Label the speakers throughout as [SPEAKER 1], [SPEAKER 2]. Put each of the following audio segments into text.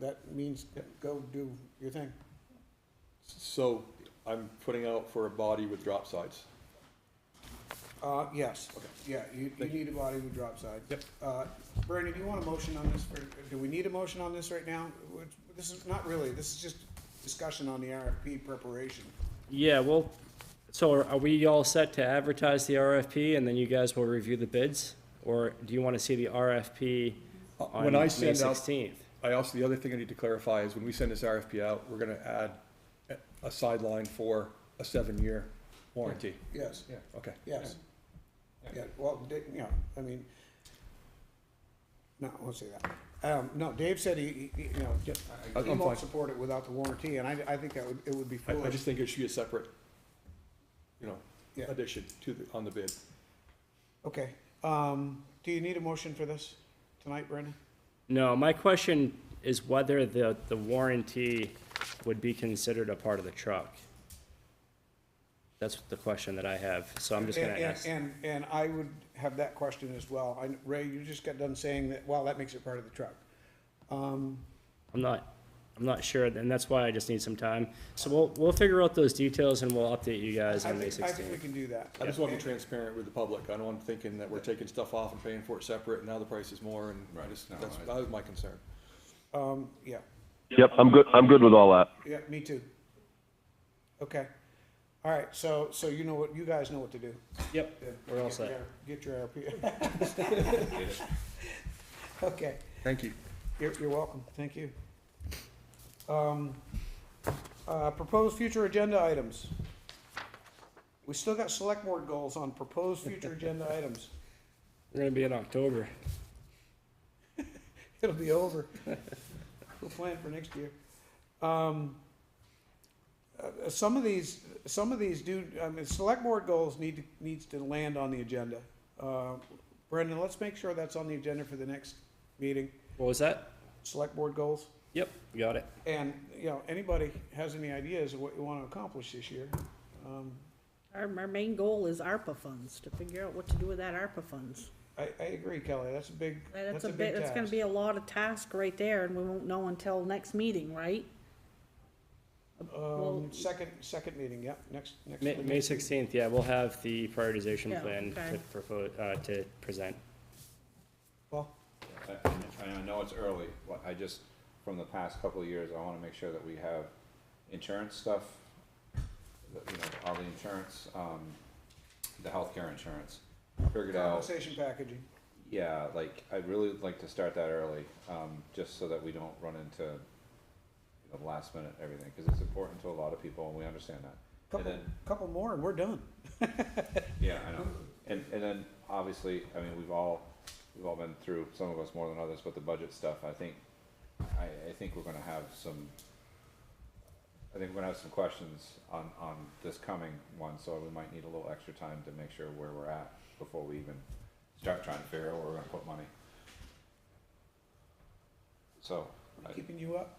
[SPEAKER 1] that means go do your thing.
[SPEAKER 2] So I'm putting out for a body with drop sides.
[SPEAKER 1] Uh, yes,
[SPEAKER 2] Okay.
[SPEAKER 1] yeah, you, you
[SPEAKER 2] Thank
[SPEAKER 1] need a body with drop side.
[SPEAKER 2] Yep.
[SPEAKER 1] Uh, Brandon, do you want a motion on this, for do we need a motion on this right now? Which- This is not really, this is just discussion on the RFP preparation.
[SPEAKER 3] Yeah, well, so are- are we all set to advertise the RFP and then you guys will review the bids? Or do you want to see the RFP on
[SPEAKER 2] Uh, When I
[SPEAKER 3] May
[SPEAKER 2] send out,
[SPEAKER 3] sixteenth?
[SPEAKER 2] I also, the other thing I need to clarify is when we send this RFP out, we're gonna add a- a sideline for a seven-year warranty.
[SPEAKER 1] Yes,
[SPEAKER 2] Yeah. Okay.
[SPEAKER 1] yes. Yeah, well, Da- you know, I mean, no, I won't say that. Um, no, Dave said he, he- you know,
[SPEAKER 2] I-
[SPEAKER 1] he
[SPEAKER 2] I'm fine.
[SPEAKER 1] won't support it without the warranty, and I, I think that would, it would be
[SPEAKER 2] I, I
[SPEAKER 1] foolish.
[SPEAKER 2] just think it should be a separate, you know,
[SPEAKER 1] Yeah.
[SPEAKER 2] addition to the, on the bid.
[SPEAKER 1] Okay, um, do you need a motion for this tonight, Brandon?
[SPEAKER 3] No, my question is whether the, the warranty would be considered a part of the truck. That's the question that I have, so I'm just gonna
[SPEAKER 1] And-
[SPEAKER 3] ask.
[SPEAKER 1] And, and and I would have that question as well. I Ray, you just got done saying that, well, that makes it part of the truck. Um,
[SPEAKER 3] I'm not, I'm not sure, and that's why I just need some time. So we'll, we'll figure out those details and we'll update you guys
[SPEAKER 1] I
[SPEAKER 3] on May
[SPEAKER 1] think, I think we
[SPEAKER 3] sixteenth.
[SPEAKER 1] can do that.
[SPEAKER 2] I just want to be
[SPEAKER 1] And-
[SPEAKER 2] transparent with the public. I don't want them thinking that we're taking stuff off and paying for it separate, and now the price is more, and I
[SPEAKER 4] Right.
[SPEAKER 2] just,
[SPEAKER 4] No,
[SPEAKER 2] that's,
[SPEAKER 4] I-
[SPEAKER 2] that was my concern.
[SPEAKER 1] Um, yeah,
[SPEAKER 5] Yep, I'm good, I'm good with all that.
[SPEAKER 1] yeah, me too. Okay. All right, so, so you know what, you guys know what to do.
[SPEAKER 3] Yep, we're all set.
[SPEAKER 1] Get your RP. Okay,
[SPEAKER 2] Thank you.
[SPEAKER 1] you're, you're welcome. Thank you. Um, uh, proposed future agenda items. We still got select board goals on proposed future agenda items.
[SPEAKER 3] We're gonna be in October.
[SPEAKER 1] It'll be over. We'll plan for next year. Um, uh, some of these, some of these do, I mean, select board goals need to, needs to land on the agenda. Uh, Brendan, let's make sure that's on the agenda for the next meeting,
[SPEAKER 3] What was that?
[SPEAKER 1] select board goals.
[SPEAKER 3] Yep, got it.
[SPEAKER 1] And, you know, anybody has any ideas of what you want to accomplish this year? Um,
[SPEAKER 6] Our, our main goal is ARPA funds, to figure out what to do with that ARPA funds.
[SPEAKER 1] I, I agree, Kelly, that's a big,
[SPEAKER 6] That's a
[SPEAKER 1] big
[SPEAKER 6] bit, that's gonna
[SPEAKER 1] task.
[SPEAKER 6] be a lot of task right there, and we won't know until next meeting, right?
[SPEAKER 1] Um, second, second meeting, yep, next, next.
[SPEAKER 3] May, May sixteenth, yeah, we'll have the prioritization
[SPEAKER 6] Yeah,
[SPEAKER 3] plan to
[SPEAKER 6] okay.
[SPEAKER 3] propose, uh, to present.
[SPEAKER 1] Well,
[SPEAKER 4] I- And I know it's early, but I just, from the past couple of years, I wanna make sure that we have insurance stuff, that, you know, all the insurance, um, the healthcare insurance, figured out.
[SPEAKER 1] compensation packaging.
[SPEAKER 4] Yeah, like, I'd really like to start that early, um, just so that we don't run into you know, the last minute everything, cause it's important to a lot of people, and we understand that. And
[SPEAKER 1] Couple,
[SPEAKER 4] then
[SPEAKER 1] couple more and we're done.
[SPEAKER 4] Yeah, I know. And, and then, obviously, I mean, we've all, we've all been through, some of us more than others, but the budget stuff, I think, I, I think we're gonna have some, I think we're gonna have some questions on, on this coming one, so we might need a little extra time to make sure where we're at before we even start trying to figure out where we're gonna put money. So, I-
[SPEAKER 1] Keeping you up?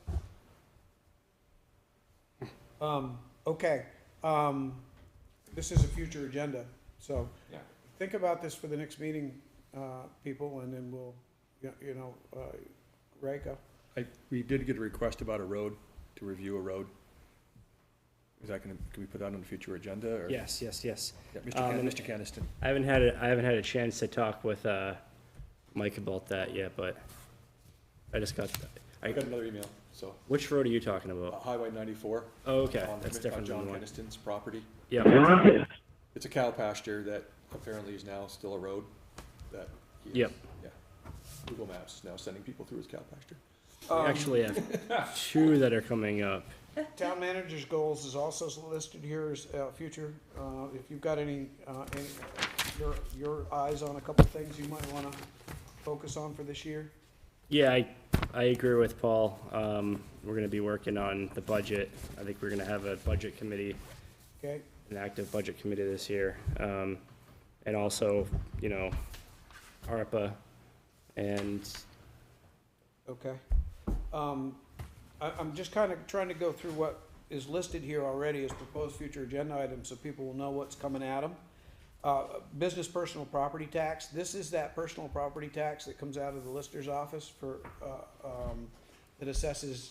[SPEAKER 1] Um, okay, um, this is a future agenda, so
[SPEAKER 4] yeah,
[SPEAKER 1] think about this for the next meeting, uh, people, and then we'll, you you know, uh, Ray, go.
[SPEAKER 2] I, we did get a request about a road, to review a road. Is that gonna, can we put that on the future agenda, or?
[SPEAKER 3] Yes, yes, yes.
[SPEAKER 2] Yeah, Mr.
[SPEAKER 3] Um,
[SPEAKER 2] Can,
[SPEAKER 3] and-
[SPEAKER 2] Mr. Caniston.
[SPEAKER 3] I haven't had, a- I haven't had a chance to talk with, uh, Mike about that yet, but I just got,
[SPEAKER 2] I
[SPEAKER 3] I,
[SPEAKER 2] got another email, so,
[SPEAKER 3] which road are you talking
[SPEAKER 2] uh,
[SPEAKER 3] about?
[SPEAKER 2] Highway ninety-four.
[SPEAKER 3] Oh, okay,
[SPEAKER 2] on-
[SPEAKER 3] that's
[SPEAKER 2] on
[SPEAKER 3] different
[SPEAKER 2] John
[SPEAKER 3] than the one.
[SPEAKER 2] Caniston's property.
[SPEAKER 3] Yeah,
[SPEAKER 2] It's a cow pasture that apparently is now still a road that. he is-
[SPEAKER 3] Yep.
[SPEAKER 2] Yeah. Google Maps is now sending people through his cow pasture. Um,
[SPEAKER 3] we actually have two that are coming up.
[SPEAKER 1] Town manager's goals is also listed here as, uh, future, uh, if you've got any, uh, any, your, your eyes on a couple things you might wanna focus on for this year.
[SPEAKER 3] Yeah, I, I agree with Paul. Um, we're gonna be working on the budget. I think we're gonna have a budget committee
[SPEAKER 1] Okay,
[SPEAKER 3] an active budget committee this year. Um, and also, you know, ARPA and,
[SPEAKER 1] okay. Um, I, I'm just kind of trying to go through what is listed here already as proposed future agenda items, so people will know what's coming at them. Uh, business personal property tax, this is that personal property tax that comes out of the lister's office for, uh, um, that assesses